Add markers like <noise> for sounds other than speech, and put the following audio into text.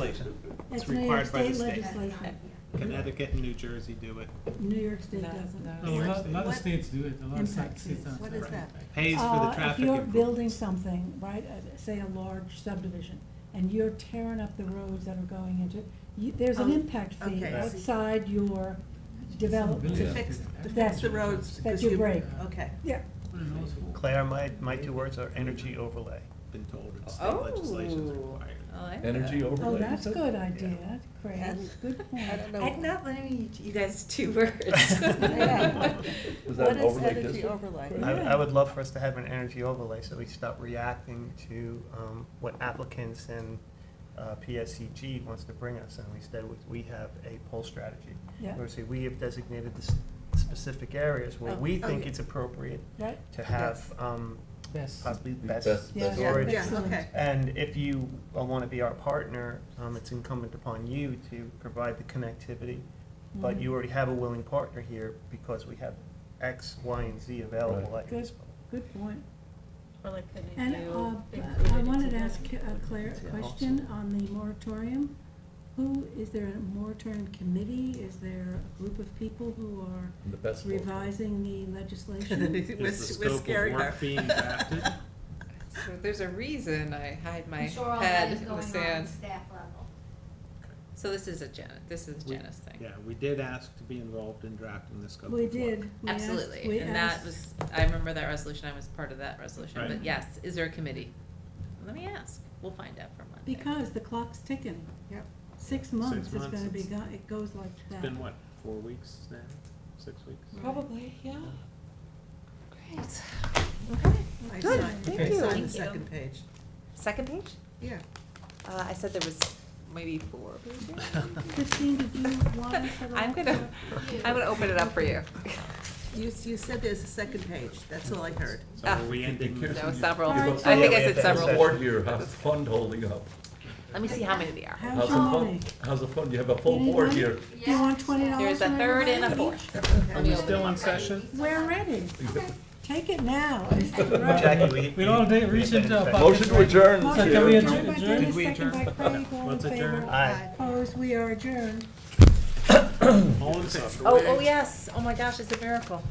legislation. It's It's New York required by the State state. legislation. Connecticut and New Jersey do it. New York State No, doesn't. no. A New York lot, a lot of What- states do it, a lot of Impact states. fees. are- What is that? Pays for the Uh, traffic If you're building improvements. something, right, uh, say a large subdivision, and you're tearing up the roads that are going into, you- there's an Oh, impact fee okay, I see. outside your development. Yeah. To fix, to That- fix the roads. that 'cause you break. Okay. Yeah, Claire, my, my two words are energy overlay. Been told it's state legislation's Oh. required. I like Energy that. overlay. oh, that's a good Yeah. idea, Craig, That's- good <laughs> I point. don't I'm know. not letting you, you guys <laughs> two words. Yeah. Was that What an is overlay energy district? I, overlay? I would love for us to have an energy overlay, so we stop reacting to, um, what applicants and, uh, PSCG wants to bring us, and instead we- we have a poll strategy. Yeah. Where we say, we have designated the s- specific areas where Oh, we oh, think yeah. it's appropriate Right? to have, um, Yes. possibly best Best- Yeah, best storage. Yeah, Excellent. okay. And if you want to be our partner, um, it's incumbent upon you to provide the connectivity. But Mm-hmm. Mhm. you already have a willing partner here because we have X, Y, and Z available at Good. this. Good point. Or like the And uh, new big I riveted wanted to together. ask uh, Claire a question on the moratorium. Who, is there a moratorium committee? Is there a group of people who are The best. of both worlds. revising the <laughs> <laughs> <laughs> legislation? Is the scope of work being drafted? So there's a reason I hide my I'm sure all that head is in the going on at sand. the staff level. So this is a Janet, this is a We- Janice thing. Yeah, we did ask to be involved in drafting the scope of work. We did. We asked- Absolutely, we and that asked- was, I remember that resolution, I was part of that resolution, Right. but yes, is there a committee? Let me ask, we'll find out for Monday. Because the clock's ticking. Yep. Six months is months, gonna be, it's- go- it goes like It's that. been what, four weeks now, six weeks? Probably, yeah. Great. Okay. I Good, signed- thank I you. signed Thank the you. second page. Second page? Yeah. Uh, I said there was maybe four pages. <laughs> Christine, did you want us at all? I'm gonna, I'm gonna open it up for you. You, s- you said there's a second page. That's all I heard. So are we ending? There No, this? several. All I right. think Yeah, we I have said to have several. several. Board here, how's the fund holding up? Let me see how many there are. How's How's the your fund, money? how's the fund, you have a full You need board money? here. You want twenty dollars? There's a third and a fourth. Are we still in session? We're ready. Take it <laughs> now. Jackie, we. We all did reach into our pockets. Motion to adjourn. Motion So can we Motion adjourn? by Dennis, Did we second by adjourn? Craig, all in Let's adjourn. favor. Aye. Opposed, we are adjourned. All in favor? Oh, oh, yes. Oh, my gosh, it's a miracle.